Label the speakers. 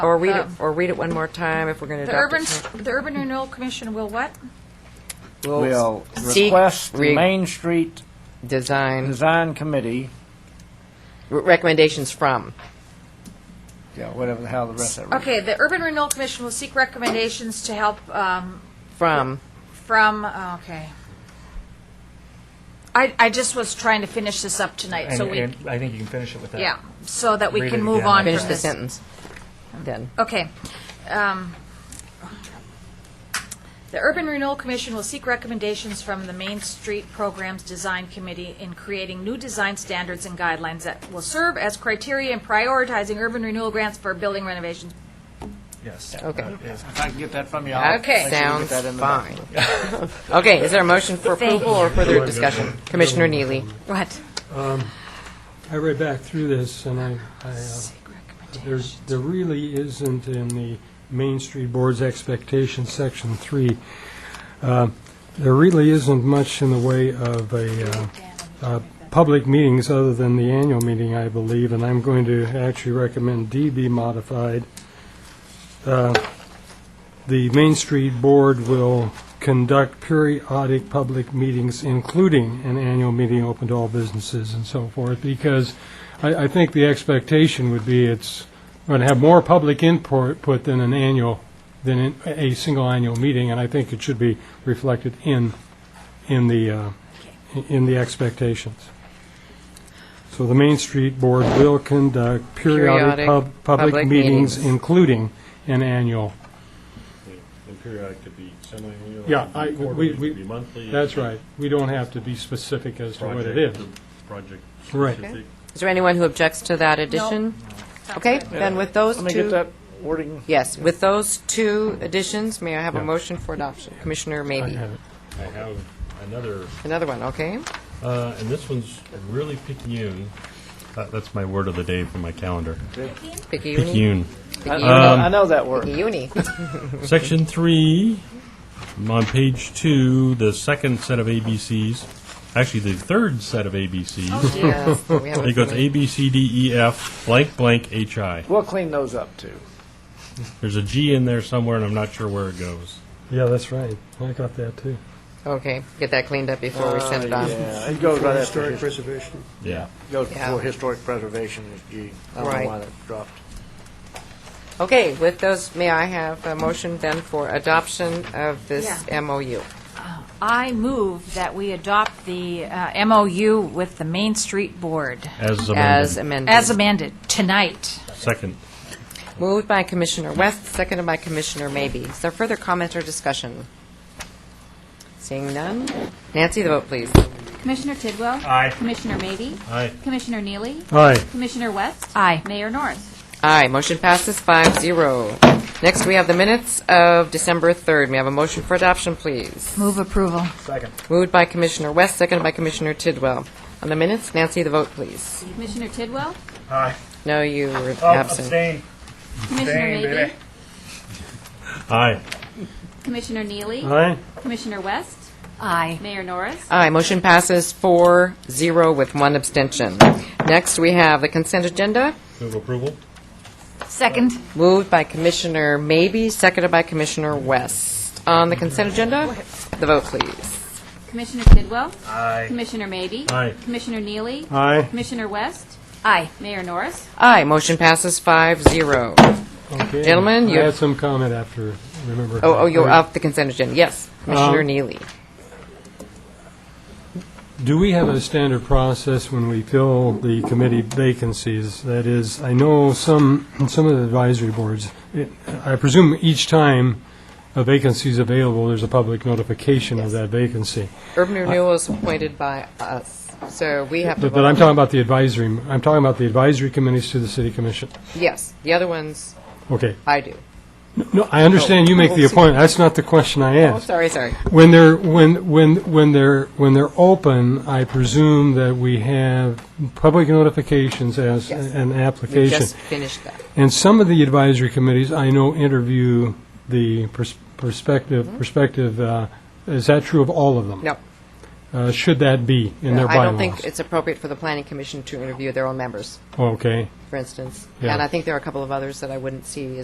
Speaker 1: Or read it,
Speaker 2: Um,
Speaker 1: or read it one more time if we're going to
Speaker 2: The
Speaker 1: adopt
Speaker 2: urban,
Speaker 1: it.
Speaker 2: the urban renewal commission will what?
Speaker 3: will
Speaker 1: seek
Speaker 3: request the
Speaker 1: re-
Speaker 3: Main Street
Speaker 1: Design,
Speaker 3: Design Committee,
Speaker 1: r- recommendations from.
Speaker 3: yeah, whatever the hell the rest of it.
Speaker 2: Okay, the urban renewal commission will seek recommendations to help, um,
Speaker 1: From,
Speaker 2: from, okay. I, I just was trying to finish this up tonight, so
Speaker 4: And,
Speaker 2: we,
Speaker 4: and I think you can finish it with that.
Speaker 2: yeah, so that we
Speaker 4: Read
Speaker 2: can
Speaker 4: it
Speaker 2: move
Speaker 4: again.
Speaker 2: on
Speaker 1: finish
Speaker 2: from
Speaker 1: the
Speaker 2: this.
Speaker 1: sentence. Then.
Speaker 2: Okay. Um, The Urban Renewal Commission will seek recommendations from the Main Street Programs Design Committee in creating new design standards and guidelines that will serve as criteria in prioritizing urban renewal grants for building renovations.
Speaker 4: Yes.
Speaker 1: Okay.
Speaker 4: That is-
Speaker 3: If I can get that from you, I'll make sure you
Speaker 2: Okay.
Speaker 3: get
Speaker 1: Sounds
Speaker 3: that in the
Speaker 1: fine. Okay, is there a motion for approval or further discussion? Commissioner Neely,
Speaker 2: What?
Speaker 5: I read back through this, and I, I, uh, there's, there really isn't in the Main Street Board's expectation, Section 3, uh, there really isn't much in the way of a, uh, uh, public meetings other than the annual meeting, I believe, and I'm going to actually recommend D be modified. Uh, The Main Street Board will conduct periodic public meetings, including an annual meeting open to all businesses and so forth, because I, I think the expectation would be it's going to have more public input put than an annual, than in- a single annual meeting, and I think it should be reflected in, in the, uh, in the expectations. So the Main Street Board will
Speaker 1: Periodic
Speaker 5: conduct periodic pub-
Speaker 1: public
Speaker 5: public meetings,
Speaker 1: meetings.
Speaker 5: including an annual.
Speaker 6: And periodic could be semi-annual.
Speaker 5: Yeah,
Speaker 6: it could
Speaker 5: I,
Speaker 6: be
Speaker 5: we,
Speaker 6: quarterly, it
Speaker 5: we.
Speaker 6: could be monthly. it
Speaker 5: That's
Speaker 6: could be
Speaker 5: right. We don't have to be specific as to what it
Speaker 6: project-
Speaker 5: is.
Speaker 6: Project
Speaker 5: Right.
Speaker 6: specific.
Speaker 1: is there anyone who objects to that addition? Okay, then with those
Speaker 3: Let me get
Speaker 1: two,
Speaker 3: that wording.
Speaker 1: yes, with those two additions, may I have a motion for adoption? Commissioner
Speaker 5: I
Speaker 1: Maybe,
Speaker 5: have it.
Speaker 6: I have another,
Speaker 1: another one, okay?
Speaker 6: uh, and this one's really picayune. Uh, That's my word of the day from my calendar.
Speaker 1: Picayune,
Speaker 6: Picayune.
Speaker 3: I- I
Speaker 5: Uh,
Speaker 3: know-
Speaker 7: Um,
Speaker 3: I know that word.
Speaker 1: Picayune.
Speaker 6: Section three, on page two, the second set of ABCs, actually the third set of ABCs.
Speaker 1: Yes, we have
Speaker 6: It
Speaker 1: it
Speaker 6: goes
Speaker 1: for me.
Speaker 6: A, B, C, D, E, F, blank, blank, H, I.
Speaker 3: We'll clean those up, too.
Speaker 6: There's a G in there somewhere, and I'm not sure where it goes.
Speaker 5: Yeah, that's right. I got that, too.
Speaker 1: Okay, get that cleaned up before we send it
Speaker 3: Uh,
Speaker 1: on.
Speaker 3: Yeah, it goes right after,
Speaker 7: Historic
Speaker 3: his-
Speaker 7: preservation.
Speaker 6: Yeah.
Speaker 3: goes
Speaker 1: Um, Yeah.
Speaker 3: before historic preservation is G. I don't
Speaker 1: Right.
Speaker 3: know why that dropped.
Speaker 1: Okay, with those, may I have a motion then for adoption of this MOU?
Speaker 2: I move that we adopt the uh, MOU with the Main Street Board
Speaker 6: As
Speaker 1: As
Speaker 6: amended.
Speaker 1: amended.
Speaker 2: as amended tonight.
Speaker 6: Second.
Speaker 1: Moved by Commissioner West, seconded by Commissioner Maybe. Is there further comment or discussion? Seeing none. Nancy, the vote, please.
Speaker 8: Commissioner Tidwell?
Speaker 6: Aye.
Speaker 8: Commissioner Maybe?
Speaker 6: Aye.
Speaker 8: Commissioner Neely?
Speaker 5: Aye.
Speaker 8: Commissioner West?
Speaker 2: Aye.
Speaker 8: Mayor Norris?
Speaker 1: Aye, motion passes five zero. Next, we have the minutes of December 3rd. May I have a motion for adoption, please?
Speaker 2: Move approval.
Speaker 1: Moved by Commissioner West, seconded by Commissioner Tidwell. On the minutes, Nancy, the vote, please.
Speaker 8: Commissioner Tidwell?
Speaker 1: No, you were
Speaker 3: Oh,
Speaker 1: absent.
Speaker 8: Commissioner Maybe?
Speaker 6: Aye.
Speaker 8: Commissioner Neely?
Speaker 5: Aye?
Speaker 8: Commissioner West?
Speaker 2: Aye.
Speaker 8: Mayor Norris?
Speaker 1: Aye, motion passes four zero with one abstention. Next, we have the consent agenda.
Speaker 6: Move approval?
Speaker 2: Second.
Speaker 1: Moved by Commissioner Maybe, seconded by Commissioner West. On the consent agenda, the vote, please.
Speaker 8: Commissioner Tidwell? Aye. Commissioner Maybe?
Speaker 6: Aye.
Speaker 8: Commissioner Neely?
Speaker 5: Aye.
Speaker 8: Commissioner West?
Speaker 2: Aye.
Speaker 8: Mayor Norris?
Speaker 1: Aye, motion passes five zero.
Speaker 5: Okay.
Speaker 1: Gentlemen, you-
Speaker 5: I had some comment after, remember.
Speaker 1: Oh, oh, you're off the consent agenda, yes. Commissioner
Speaker 5: Um,
Speaker 1: Neely.
Speaker 5: Do we have a standard process when we fill the committee vacancies? That is, I know some, some of the advisory boards, it- I presume each time a vacancy is available, there's a public notification of that vacancy.
Speaker 1: Urban renewal is appointed by us, so we have to
Speaker 5: But
Speaker 1: vote.
Speaker 5: but I'm talking about the advisory, I'm talking about the advisory committees to the city commission.
Speaker 1: Yes, the other ones,
Speaker 5: Okay.
Speaker 1: I do.
Speaker 5: No, I understand you make the appointment. That's not the question I
Speaker 1: Oh,
Speaker 5: asked.
Speaker 1: sorry, sorry.
Speaker 5: When they're, when, when, when they're, when they're open, I presume that we have public notifications as
Speaker 1: Yes.
Speaker 5: an
Speaker 1: We
Speaker 5: application.
Speaker 1: just finished that.
Speaker 5: And some of the advisory committees, I know, interview the pers- perspective, perspective, uh, is that true of all of them?
Speaker 1: Mm-hmm. No.
Speaker 5: Uh, Should that be in their bylaws?
Speaker 1: I don't think it's appropriate for the planning commission to interview their own members,
Speaker 5: Okay.
Speaker 1: for instance.
Speaker 5: Yeah.
Speaker 1: And I think there are a couple of others that I wouldn't see